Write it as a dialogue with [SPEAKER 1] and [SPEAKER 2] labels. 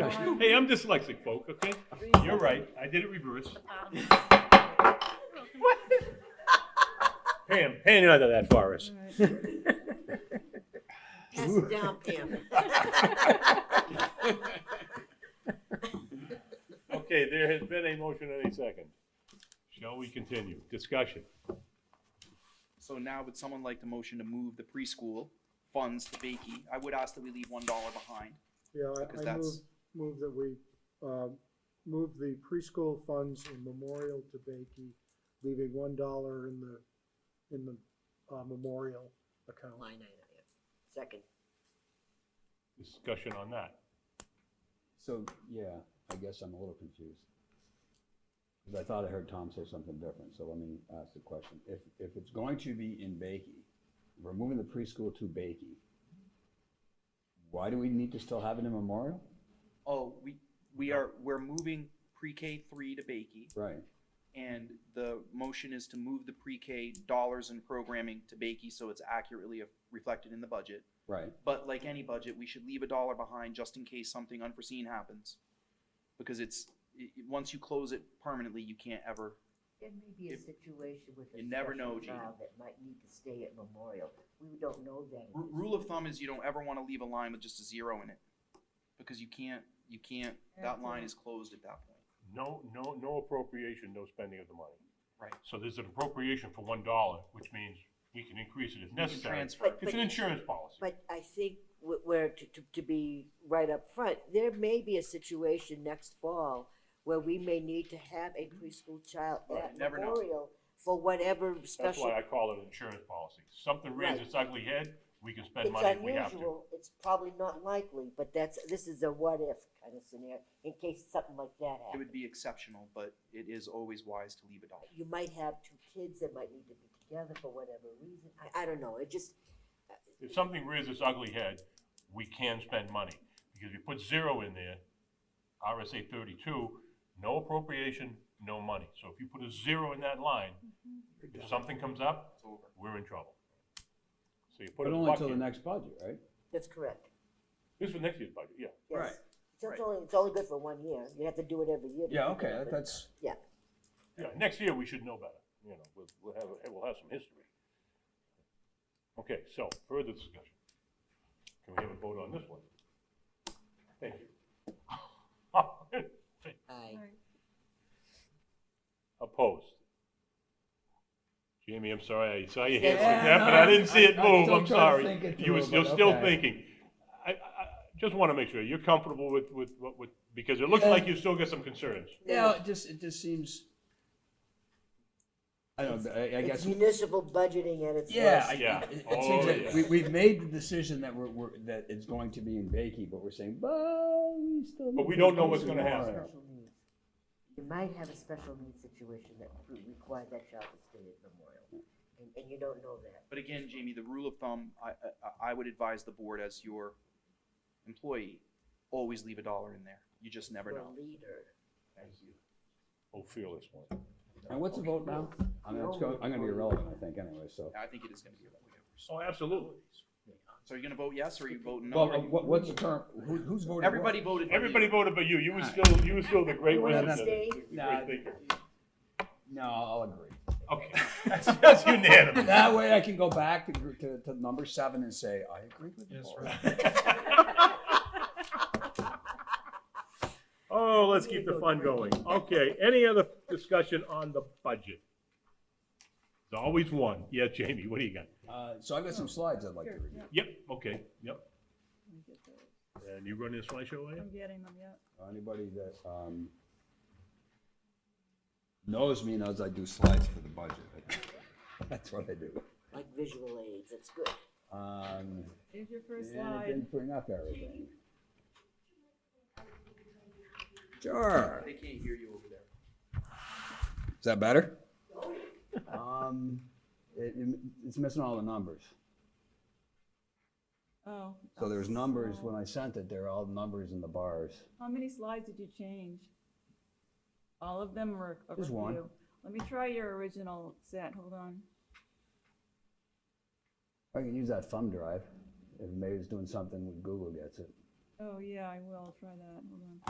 [SPEAKER 1] discussion.
[SPEAKER 2] Hey, I'm dyslexic, folk, okay? You're right, I did it reverse. Pam, Pam, you're not that far, us.
[SPEAKER 3] Pass it down, Pam.
[SPEAKER 2] Okay, there has been a motion and a second. Shall we continue? Discussion.
[SPEAKER 4] So now would someone like the motion to move the preschool funds to Bakey? I would ask that we leave one dollar behind.
[SPEAKER 5] Yeah,
[SPEAKER 4] Because
[SPEAKER 5] I, I move,
[SPEAKER 4] that's-
[SPEAKER 5] move that we, um, move the preschool funds in memorial to Bakey, leaving one dollar in the, in the, uh, memorial account.
[SPEAKER 3] Line item, yeah. Second.
[SPEAKER 2] Discussion on that.
[SPEAKER 1] So, yeah, I guess I'm a little confused. 'Cause I thought I heard Tom say something different, so let me ask the question. If, if it's going to be in Bakey, we're moving the preschool to Bakey, why do we need to still have it in Memorial?
[SPEAKER 4] Oh, we, we are, we're moving pre-K three to Bakey,
[SPEAKER 1] Right,
[SPEAKER 4] and the motion is to move the pre-K dollars and programming to Bakey so it's accurately reflected in the budget.
[SPEAKER 1] right.
[SPEAKER 4] But like any budget, we should leave a dollar behind just in case something unforeseen happens. Because it's, i- i- once you close it permanently, you can't ever,
[SPEAKER 3] There may be a
[SPEAKER 4] If-
[SPEAKER 3] situation with a
[SPEAKER 4] you never
[SPEAKER 3] special
[SPEAKER 4] know, Gina.
[SPEAKER 3] child that might need to stay at memorial. We don't know that.
[SPEAKER 4] ru- rule of thumb is you don't ever wanna leave a line with just a zero in it. Because you can't, you can't, that line is closed at that point.
[SPEAKER 2] No, no, no appropriation, no spending of the money.
[SPEAKER 4] Right.
[SPEAKER 2] So there's an appropriation for one dollar, which means we can increase it if
[SPEAKER 4] You can
[SPEAKER 2] necessary.
[SPEAKER 4] transfer.
[SPEAKER 2] It's an insurance policy.
[SPEAKER 3] But I think wh- where, to, to, to be right up front, there may be a situation next fall where we may need to have a preschool child
[SPEAKER 4] Right,
[SPEAKER 3] at
[SPEAKER 4] never know.
[SPEAKER 3] memorial for whatever
[SPEAKER 2] That's why
[SPEAKER 3] special.
[SPEAKER 2] I call it an insurance policy. Something raises its ugly head, we can spend
[SPEAKER 3] It's
[SPEAKER 2] money if we have to.
[SPEAKER 3] unusual, it's probably not likely, but that's, this is a what-if kind of scenario, in case something like that
[SPEAKER 4] It
[SPEAKER 3] happens.
[SPEAKER 4] would be exceptional, but it is always wise to leave a dollar.
[SPEAKER 3] You might have two kids that might need to be together for whatever reason, I, I don't know, it just,
[SPEAKER 2] If something raises its ugly head, we can spend money. Because if you put zero in there, RSA thirty-two, no appropriation, no money. So if you put a zero in that line, if something comes up,
[SPEAKER 4] It's over.
[SPEAKER 2] we're in trouble. So you put
[SPEAKER 1] But
[SPEAKER 2] it
[SPEAKER 1] only until the
[SPEAKER 2] bucket.
[SPEAKER 1] next budget, right?
[SPEAKER 3] that's correct,
[SPEAKER 2] This was next year's budget, yeah.
[SPEAKER 3] yes.
[SPEAKER 1] Right,
[SPEAKER 3] So
[SPEAKER 1] right.
[SPEAKER 3] it's only, it's only good for one year, you have to do it every year. to
[SPEAKER 1] Yeah,
[SPEAKER 3] keep it
[SPEAKER 1] okay,
[SPEAKER 3] up,
[SPEAKER 1] that-
[SPEAKER 3] but-
[SPEAKER 1] that's,
[SPEAKER 3] Yeah,
[SPEAKER 2] Yeah, next year we should know better, you know, we'll, we'll have, we'll have some history. Okay, so further discussion. Can we have a vote on this one? Thank you.
[SPEAKER 3] aye.
[SPEAKER 2] Opposed? Jamie, I'm sorry, I saw your
[SPEAKER 3] Yeah.
[SPEAKER 2] hands like that, but I didn't see it
[SPEAKER 1] I- I'm
[SPEAKER 2] move,
[SPEAKER 1] still
[SPEAKER 2] I'm
[SPEAKER 1] trying to
[SPEAKER 2] sorry.
[SPEAKER 1] think it
[SPEAKER 2] You were,
[SPEAKER 1] through,
[SPEAKER 2] you're
[SPEAKER 1] but
[SPEAKER 2] still
[SPEAKER 1] okay.
[SPEAKER 2] thinking. I, I, I just want to make sure, you're comfortable with, with, what with, because it looks
[SPEAKER 1] Yeah.
[SPEAKER 2] like you still got some concerns.
[SPEAKER 1] yeah, it just, it just seems, I don't, know, I, I
[SPEAKER 3] It's
[SPEAKER 1] guess.
[SPEAKER 3] municipal budgeting at its
[SPEAKER 1] Yeah,
[SPEAKER 3] worst.
[SPEAKER 1] I,
[SPEAKER 2] Yeah.
[SPEAKER 1] it, it
[SPEAKER 2] Oh,
[SPEAKER 1] seems
[SPEAKER 2] yeah.
[SPEAKER 1] that we, we've made the decision that we're, we're, that it's going to be in Bakey, but we're saying, but we still.
[SPEAKER 2] But
[SPEAKER 1] need
[SPEAKER 2] we
[SPEAKER 1] to
[SPEAKER 2] don't know
[SPEAKER 1] go
[SPEAKER 2] what's
[SPEAKER 1] to
[SPEAKER 2] gonna happen.
[SPEAKER 1] Memorial.
[SPEAKER 3] Special needs. You might have a special needs situation that would require that child to stay at Memorial, and, and you don't know that.
[SPEAKER 4] But again, Jamie, the rule of thumb, I, I, I would advise the board as your employee, always leave a dollar in there. You just never
[SPEAKER 3] You're
[SPEAKER 4] know.
[SPEAKER 3] a leader.
[SPEAKER 2] Oh, feel this one.
[SPEAKER 1] And what's the vote now? I mean, it's going, I'm gonna be irrelevant, I think, anyway, so.
[SPEAKER 4] I think it is gonna be a vote.
[SPEAKER 2] Oh, absolutely.
[SPEAKER 4] So are you gonna vote yes or are you voting no?
[SPEAKER 1] Well, uh, what, what's the term, who, who's voting? what?
[SPEAKER 4] Everybody voted. for you.
[SPEAKER 2] Everybody voted but you, you were
[SPEAKER 1] All
[SPEAKER 2] still, you were still the great
[SPEAKER 3] You wanna
[SPEAKER 2] wizard.
[SPEAKER 3] stay?
[SPEAKER 1] Nah.
[SPEAKER 2] Great thinker.
[SPEAKER 1] No, I'll agree.
[SPEAKER 2] Okay, that's, that's unanimous.
[SPEAKER 1] That way I can go back to, gr- to, to number seven and say, I agree with you. Paul."
[SPEAKER 2] Oh, let's keep the fun going. Okay, any other discussion on the budget? There's always one. Yeah, Jamie, what do you got?
[SPEAKER 1] Uh, so I've got some slides I'd like to review.
[SPEAKER 2] Yep, okay, yep.
[SPEAKER 6] Let me get those.
[SPEAKER 2] And you running a slideshow, are you?
[SPEAKER 6] I'm getting them yet.
[SPEAKER 1] Anybody that, um, knows me knows I do slides for the budget. That's what I do.
[SPEAKER 3] Like visual aids, it's good.
[SPEAKER 1] Um,
[SPEAKER 6] Here's your first
[SPEAKER 1] and it
[SPEAKER 6] slide.
[SPEAKER 1] didn't bring up everything. Sure.
[SPEAKER 4] They can't hear you over there.
[SPEAKER 1] Is that better? Um, it, it's missing all the numbers.
[SPEAKER 6] Oh.
[SPEAKER 1] So there's numbers, when I sent it, they're all numbers in the bars.
[SPEAKER 6] How many slides did you change? All of them or a
[SPEAKER 1] Just one.
[SPEAKER 6] review? Let me try your original set, hold on.
[SPEAKER 1] I can use that thumb drive, if maybe it's doing something when Google gets it.
[SPEAKER 6] Oh, yeah, I will try that, hold on.